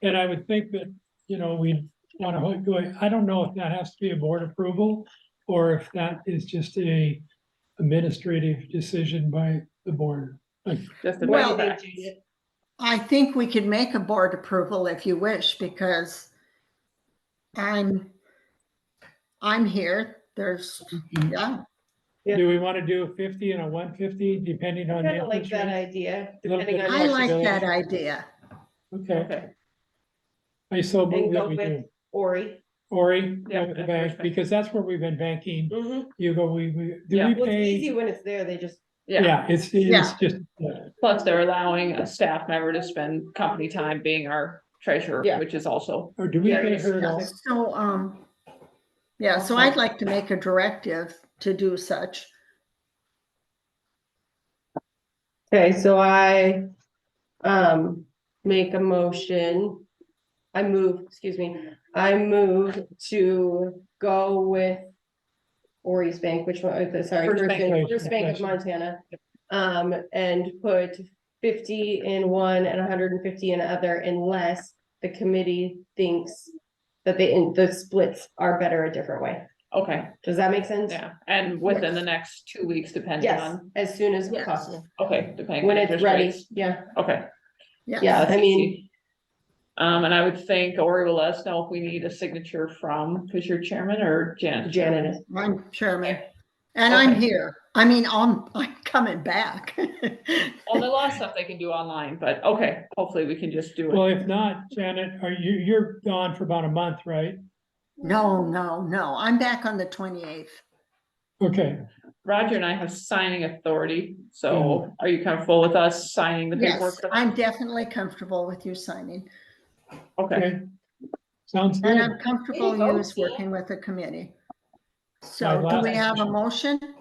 And I would think that, you know, we wanna ho- go, I don't know if that has to be a board approval or if that is just a administrative decision by the board. Just the Well, back. I think we could make a board approval if you wish, because I'm, I'm here, there's, yeah, Yeah. Do we wanna do a fifty and a one fifty depending on? Kind of like interest that rate? idea, Little depending bit. on. I what- like that Flexibility. idea. Okay, Okay, I so And move go that we with- do. Ori. Ori, Yeah, go with the that's bank, perfect. because that's where we've been banking. Mhm. You go, we, we, do Yeah. we Well, it's pay? easy when it's there, they just, Yeah, Yeah, it's, it's Yeah. just, plus they're allowing a staff member to spend company time being our treasurer, Yeah. which is also, or do we Yeah, pay it's- her at Yeah, all? So, um, yeah, so I'd like to make a directive to do such. okay, so I, um, make a motion. I move, excuse me, I move to go with Ori's Bank, which one, uh, sorry, First First Bank. Bank, First Bank of Right. Montana. Um, and put fifty in one and hundred and fifty in other unless the committee thinks that they, the splits are better a different way. okay, Does that make sense? yeah, and within the next two weeks, depending Yes, on, as soon as Yes. possible, okay, depending. when on it's interest ready, rates. yeah, Okay. yeah, I that's mean, easy. Um, and I would think Ori will let us know if we need a signature from, because you're chairman or Jan? Janet, is- I'm chairman, and I'm Okay. here. I mean, I'm, I'm coming back. Well, there's a lot of stuff they can do online, but okay, hopefully we can just do Well, it. if not, Janet, are you, you're gone for about a month, right? No, no, no, I'm back on the twenty-eighth. Okay, Roger and I have signing authority, so are you comfortable with us signing the Yes, paperwork? I'm definitely comfortable with you signing, Okay, okay. Sounds good. and I'm comfortable go, you is Tia. working with the committee. My So do last we have a motion. motion?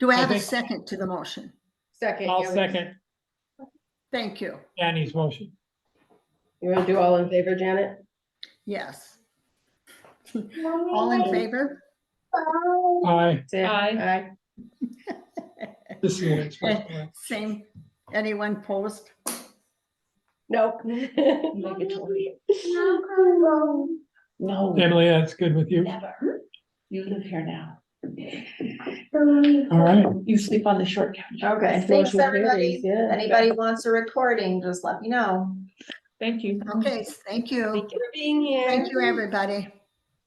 Do I I have a think- second to the motion? second. I'll you- second Thank you, Danny's motion. You wanna do all in favor, Janet? yes. All in favor? Aye. Say Aye. this is what it's supposed to be. Same, anyone post? No. no, Emily, that's good with you. never. You live here now. All right, You sleep on the short couch. Okay. Thanks, motion carries, everybody. yeah. Anybody wants a recording, just let me know. Thank you. Mm-hmm. Okay, thank you, Thank you for being here. thank you, everybody.